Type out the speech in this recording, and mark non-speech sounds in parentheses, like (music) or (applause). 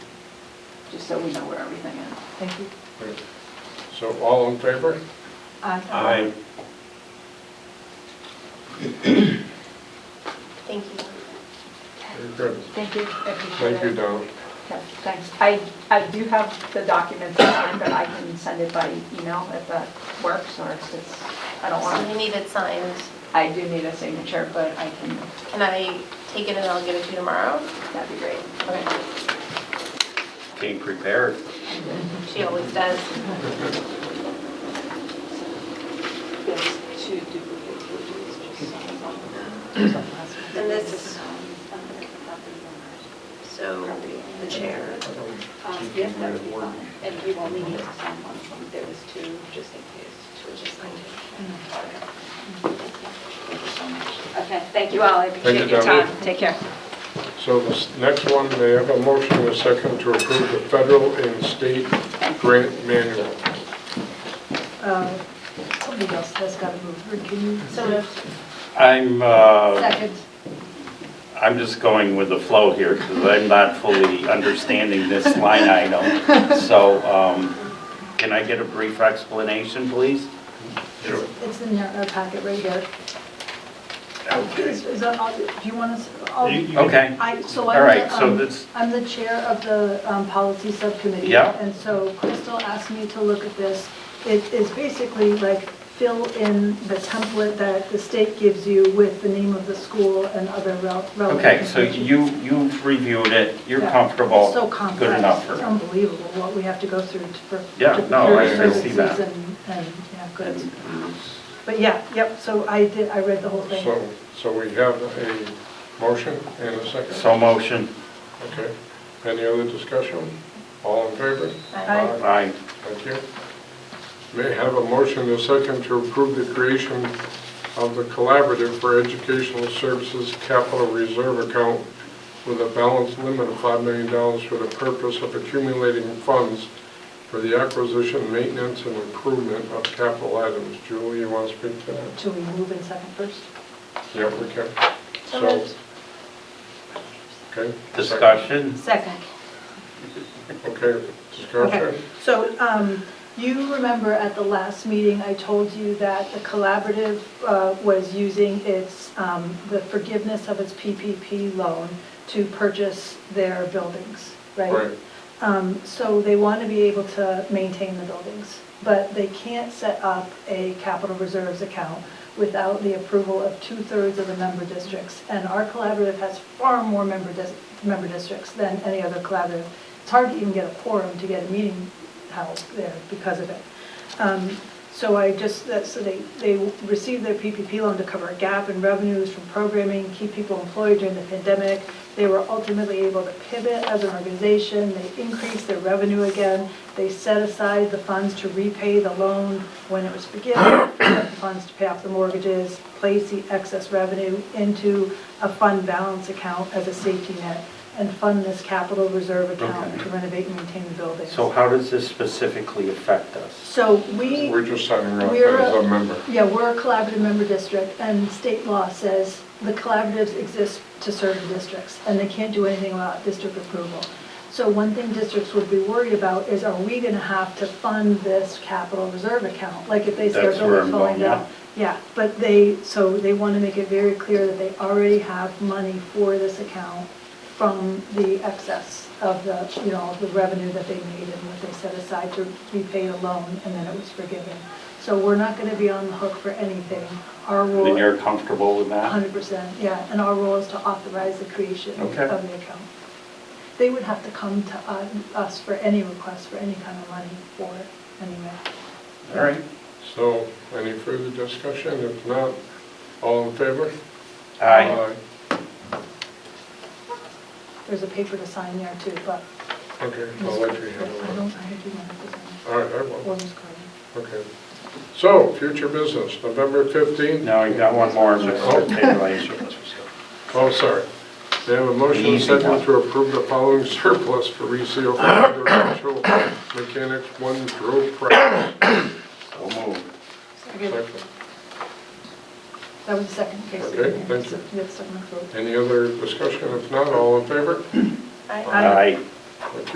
just so we know where everything is. Thank you. So all in favor? Aye. Thank you. Very good. Thank you. I appreciate Thank you, it. Don. Okay, Thanks. I, I do have the documents in mind, but I can send it by email if that works, or if it's, I don't So you want, need it signed. I do need a signature, but I can, Can I take it and I'll get it to you tomorrow? that'd be great. Okay. Being prepared. She always does. Yes, two duplicate pages, just sign one. And this is- So the chair. Um, Yes, that would be fine, and you only need to sign one of them, there was two, just in case. Two just signed it. Okay, thank you all, I appreciate you, your Dominic. time. Take care. So the s- next one, may I have a motion and a second to approve the federal and state grant manual? Uh, Somebody else that's got to move. Rick, can you? I'm, uh, Second. I'm just going with the flow here because I'm not fully understanding this line item. So um, can I get a brief explanation, please? Sure. It's in your uh, packet right here. Okay. Is- is that all- Do you want Oh, You- to? okay. I, so All I'm right, the, so um, that's- I'm the chair of the um, policy subcommittee. Yeah. And so Crystal asked me to look at this. It is basically like fill in the template that the state gives you with the name of the school and other rel- relevant. Okay, so information. you, you've reviewed it, you're Yeah. comfortable. It's so Good enough complex, for it's me. unbelievable what we have to go through to- for. Yeah, to no, I- I procure see that. services And, and, yeah, goods. But yeah, yep, so I did, I read the whole thing. So, so we have a motion and a second? So motion. Okay. Any other discussion? All in favor? Aye. Aye. Thank you. May I have a motion and a second to approve the creation of the Collaborative for Educational Services Capital Reserve Account with a balance limit of $5 million for the purpose of accumulating funds for the acquisition, maintenance, and improvement of capital items. Julie, you want to speak to that? Should we move in second first? Yeah, we can. So So- moved. Okay. Discussion? Second. Okay, Okay, discussion. so um, you remember at the last meeting, I told you that the collaborative uh, was using its, um, the forgiveness of its PPP loan to purchase their buildings, Right. Um, So they want to be able to maintain the buildings, but they can't set up a capital reserves account without the approval of two-thirds of the member districts. And our collaborative has far more member, dis- member districts than any other collaborative. It's hard to even get a quorum to get a meeting held there because of it. Um, So I just, that, so they, they received their PPP loan to cover a gap in revenues from programming, keep people employed during the pandemic. They were ultimately able to pivot as an organization, they increased their revenue again, they set aside the funds to repay the loan when it was forgiven, (coughs) the funds to pay off the mortgages, place the excess revenue into a fund balance account as a safety net, and fund this capital reserve account Okay. to renovate and maintain the buildings. So how does this specifically affect us? So we. We're just signing up We're a- as a member. Yeah, we're a collaborative member district, and state law says the collaboratives exist to serve the districts, and they can't do anything about district approval. So one thing districts would be worried about is, are we gonna have to fund this capital reserve account? Like if they start That's where building I'm falling going, down. Yeah, but they, so they wanna make it very clear that they already have money for this account from the excess of the, you know, the revenue that they made and what they set aside to repay a loan, and then it was forgiven. So we're not gonna be on the hook for anything. Our role. And you're comfortable with that? hundred percent, yeah, and our role is to authorize the creation of Okay. the account. They would have to come to uh, us for any request for any kind of money for it, anyway. All right. So, any further discussion? If not, all in favor? Aye. There's a paper to sign there too, but. Aye. Okay, I'll let you I handle don't, I do not have to sign. that. All right, I will. Or just call it. Okay. So, future business, November 15th? Now, you got one more, Mr. Oh. Taylor. Oh, sorry. They have a motion and Easy second one. to approve the following surplus for reseal for residential mechanics one drill press. So moved. Okay, Second. That was the second case. Okay, thank you. Yes, second, third. Any other discussion? If not, all in favor? Aye. Aye.